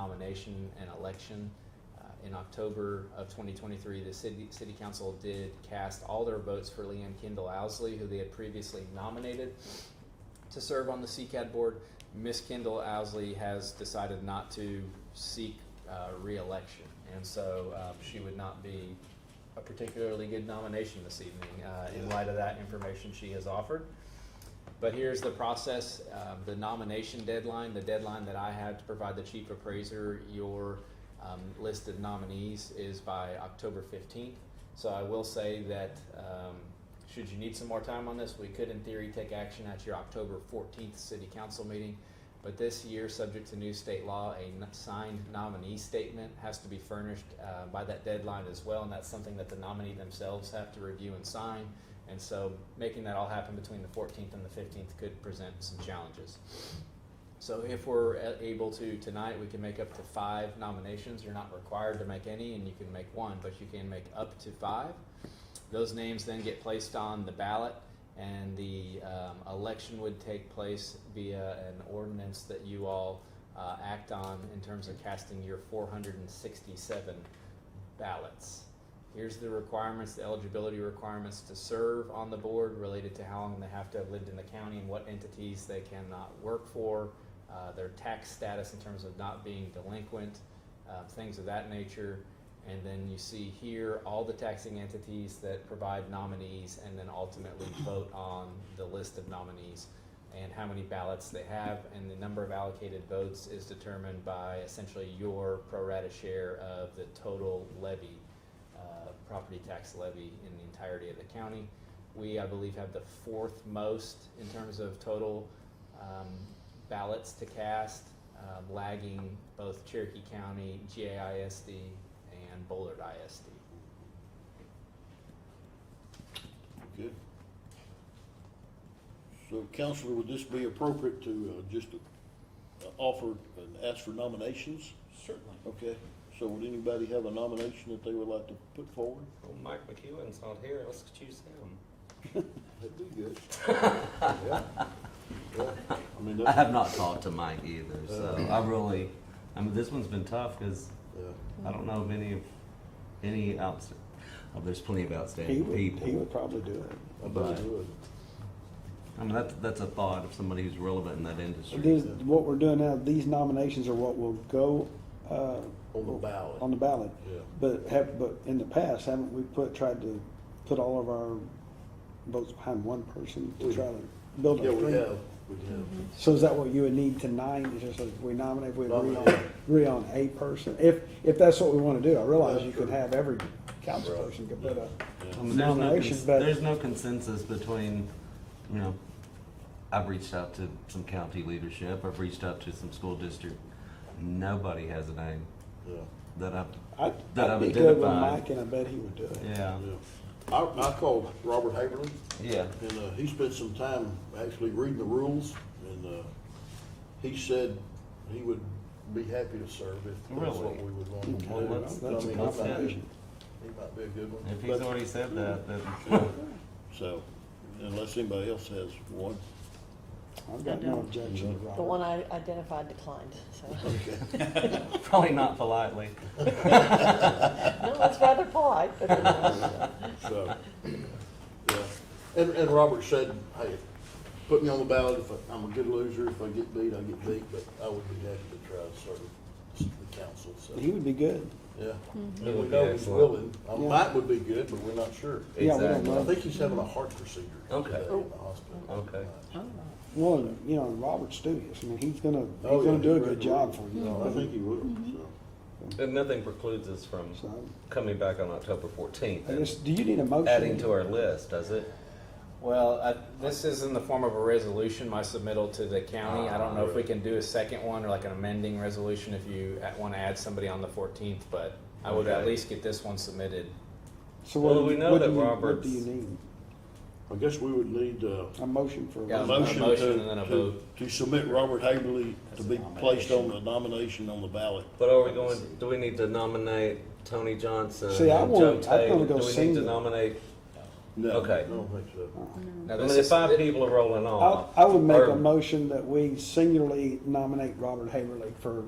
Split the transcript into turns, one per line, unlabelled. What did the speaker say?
renomination and election. Uh, In October of 2023, the city, city council did cast all their votes for Leanne Kendall Owsley, who they had previously nominated to serve on the CCAD board. Miss Kendall Owsley has decided not to seek uh, reelection, and so uh, she would not be a particularly good nomination this evening uh, in light of that information she has offered. But here's the process, uh, the nomination deadline, the deadline that I had to provide the chief appraiser your um, listed nominees is by October 15th. So I will say that um, should you need some more time on this, we could in theory take action at your October 14th city council meeting. But this year, subject to new state law, a n- signed nominee statement has to be furnished uh, by that deadline as well, and that's something that the nominee themselves have to review and sign. And so, making that all happen between the 14th and the 15th could present some challenges. So, if we're a- able to tonight, we can make up to five nominations. You're not required to make any, and you can make one, but you can make up to five. Those names then get placed on the ballot, and the um, election would take place via an ordinance that you all uh, act on in terms of casting your 467 ballots. Here's the requirements, the eligibility requirements to serve on the board related to how long they have to have lived in the county and what entities they cannot work for, uh, their tax status in terms of not being delinquent, uh, things of that nature. And then you see here all the taxing entities that provide nominees and then ultimately vote on the list of nominees and how many ballots they have. And the number of allocated votes is determined by essentially your pro rata share of the total levy uh, property tax levy in the entirety of the county. We, I believe, have the fourth most in terms of total um, ballots to cast, um, lagging both Cherokee County, GAISD, and Bollard ISD.
Okay. So Counselor, would this be appropriate to uh, just uh, offer and ask for nominations?
Certainly.
Okay, so would anybody have a nomination that they would like to put forward?
Well, Mike McEwen's not here, let's choose him.
That'd be good. Yeah. Yeah. I mean,
I
that's,
have not talked to Mike either, so I really, I mean, this one's been tough because
yeah.
I don't know of any of any outs. Oh, there's plenty of
He
outstanding
would,
people.
he would probably do it.
I bet it
Right.
would.
I mean, that's that's a thought of somebody who's relevant in that industry.
These, what we're doing now, these nominations are what will go, uh,
On the ballot.
on the ballot.
Yeah.
But have, but in the past, haven't we put, tried to put all of our votes behind one person to try to build
Yeah,
a
we
stream?
have, we have.
Mm-hmm.
So is that what you would need tonight, is just if we nominate, we agree on,
Nominate.
agree on a person? If, if that's what we wanna do, I realize
That's
you could
true.
have every council person could put a
I mean, there's, no
nomination,
cons-
but
there's no consensus between, you know, I've reached out to some county leadership. I've reached out to some school district. Nobody has a name
Yeah,
that I've.
I'd,
that
I'd
I've
be good with
identified.
Mike and I bet he would do it.
Yeah.
yeah. I, I called Robert Haberlin,
Yeah.
and uh, he spent some time actually reading the rules, and uh, he said he would be happy to serve if that's what
Really?
we would want him to do.
Well, that's-
I
that's a
mean, he might be-
compliment.
He might be a good one.
If he's
But-
already said that, then
So, unless anybody else has one,
I've got no objection to
The one
Robert.
I identified declined, so.
probably not politely.
No, it's rather polite, but
so, yeah. And, and Robert said, hey, put me on the ballot if I- I'm a good loser, if I get beat, I get beat, but I would be happy to try to serve the council, so.
He would be good.
Yeah.
It
And we
would
know
be
he's
excellent.
willing. Uh,
Yeah.
Mike would be good, but we're not sure.
Yeah, we don't
Exactly.
I
know.
think he's having a heart procedure
Okay.
today in the hospital.
Okay.
Well, and, you know, Robert studious. I mean, he's gonna, he's
Oh, yeah,
gonna do a
he's
good
ready to
job
work.
for you.
No, I think he will, so.
And nothing precludes us from
So,
coming back on October fourteenth
I
and
just, do you need a motion?
adding to our list, does it?
Well, I- this is in the form of a resolution, my submittal to the county. I don't know if we can do a second one or like an amending resolution if you want to add somebody on the 14th, but I would at
Okay.
least get this one submitted.
So
Well,
what,
we know
what
that
do you, what
Robert's-
do you need?
I guess we would need uh,
A motion for.
Yeah,
a
a
motion
motion
to,
and then a
to,
vote.
to submit Robert Haverly to be placed on the nomination on the ballot.
But are we going, do we need to nominate Tony Johnson?
See, I
and
want-
Joe
I think
Taylor?
we'll go
Do we need to
single.
nominate,
No,
Okay.
I don't think so.
Now,
I
this
mean, if
is-
five people are rolling
I,
off.
I would make
or-
a motion that we singularly nominate Robert Haverly for